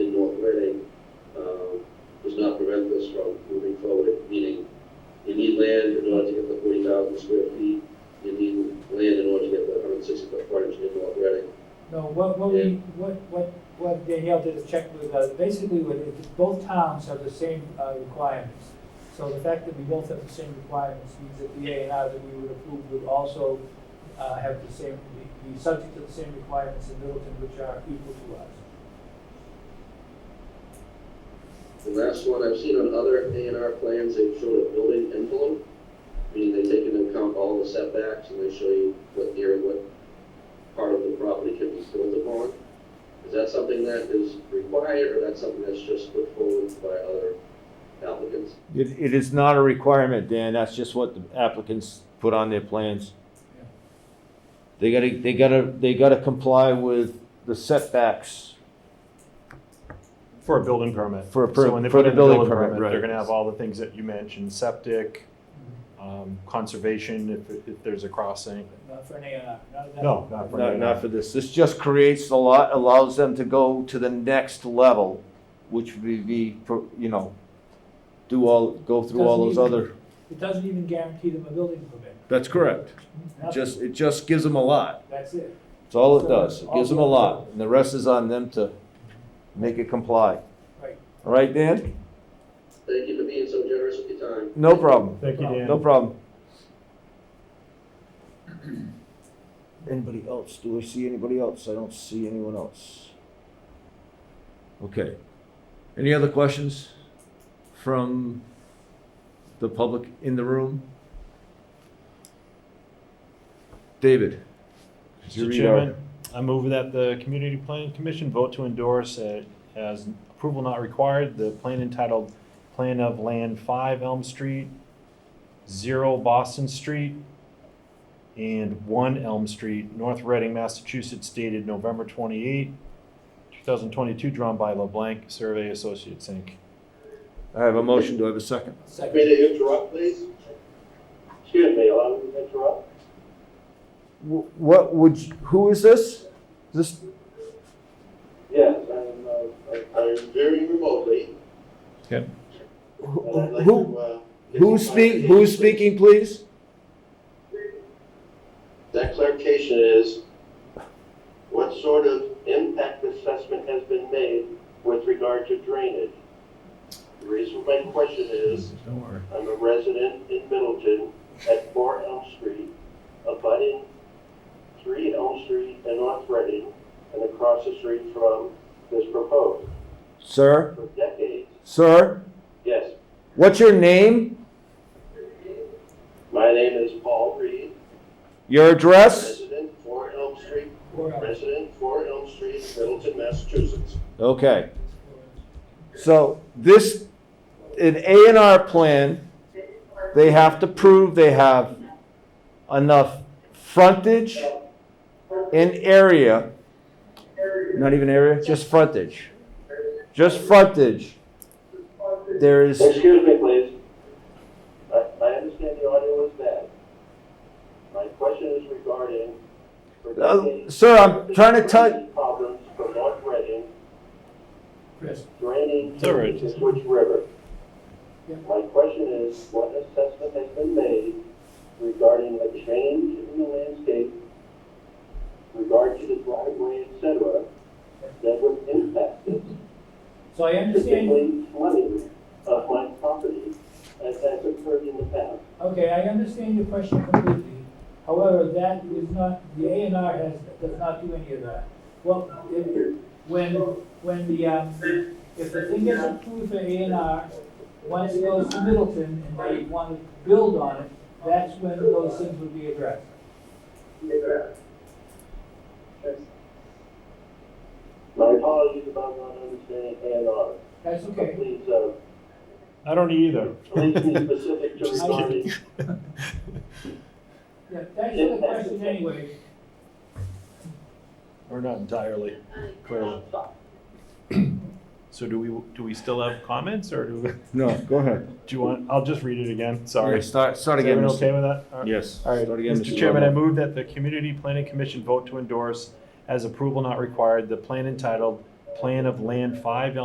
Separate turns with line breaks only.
um, us from moving forward, meaning you need land in order to get the forty thousand square feet, you need land in order to get the hundred and sixty foot frontage in North Reading.
No, what, what we, what, what, what Danielle did is check with, uh, basically what it is, both towns have the same, uh, requirements. So the fact that we both have the same requirements means that the A and R that we would approve would also, uh, have the same, be, be subject to the same requirements in Middleton, which are equal to us.
The last one I've seen on other A and R plans, they've shown a building envelope, meaning they take into account all the setbacks and they show you what area, what part of the property can be built upon. Is that something that is required or that's something that's just put forward by other applicants?
It, it is not a requirement, Dan, that's just what the applicants put on their plans.
Yeah.
They gotta, they gotta, they gotta comply with the setbacks.
For a building permit.
For a per-
So when they
for
put
the
in a
building
building
permit,
permit,
right.
they're gonna have all the things that you mentioned, septic, um, conservation, if, if there's a crossing.
But Not for an A and R, not an.
No, not for
Not, not for this, this just creates the lot, allows them to go to the next level, which would be, pro- you know, do all, go through all those
Doesn't even-
other.
It doesn't even guarantee them a building permit.
That's correct.
Nothing.
Just, it just gives them a lot,
That's it.
that's all it does, it gives them a lot, and the rest is on them to make it comply.
Right.
All right, Dan?
Thank you for being so generous with your time.
No problem.
Thank you, Dan.
No problem. Anybody else? Do I see anybody else? I don't see anyone else. Okay. Any other questions from the public in the room? David? could you
Mr.
read our-
Chairman, I move that the Community Planning Commission vote to endorse uh, as approval not required, the plan entitled Plan of Land Five Elm Street, Zero Boston Street, and One Elm Street, North Reading, Massachusetts, dated November twenty-eight, two thousand twenty-two, drawn by LeBlanc Survey Associates, Inc.
I have a motion. Do I have a second?
May
Second.
I interrupt, please? Excuse me, allow me to interrupt?
Wh- What would, you- who is this? This,
Yes, I'm, uh, I- I'm very remotely. and I'd
wh-
like
who,
to, uh, get
who's
some
speak,
clarification,
who's
please.
speaking, please?
That clarification is, what sort of impact assessment has been made with regard to drainage? The reason for my question is,
Don't worry.
I'm a resident in Middleton at four Elm Street, abutting three Elm Street and North Reading, and across the street from this proposed.
Sir,
For decades,
sir,
yes,
what's your name?
my name is Paul Reed,
Your address?
resident, four Elm Street,
Four hours.
Resident, 4 Elm Street, Middleton, Massachusetts.
Okay. So this, an A and R plan, they have to prove they have enough frontage and area, not even area, just frontage. Just frontage. There is,
Excuse me, please. I, I understand the audio is bad. My question is regarding.
Uh, sir, I'm trying to tell,
Problems from North Reading
Chris,
draining
It's all right.
to the Switch River.
Yeah.
My question is, what assessment has been made regarding the change in the landscape, regard to the driveway, et cetera, that would impact this?
so I understand
particularly flooding of my property as has occurred in the past.
Okay, I understand your question completely. However, that is not, the A and R has, does not do any of that. Well, if, when, when the, um, if the thing gets approved for A and R, once it goes to Middleton and they want to build on it, that's when those things would be addressed.
My apologies about not understanding A and R.
That's okay.
Please, uh,
I don't either.
please be specific to
Just
regarding.
kidding.
Yeah, thanks for the question anyway.
Or not entirely, clearly. So do we, do we still have comments, or do, we- do
no, go ahead.
you want, I'll just read it again, sorry.
Yeah, Start, start
Is
again.
everyone
Mr.
okay with that? All right.
Yes.
All right,
Start again,
Mr. Chairman, I
Lovell.
move that the Community Planning Commission vote to endorse as approval not required, the plan entitled Plan of Land Five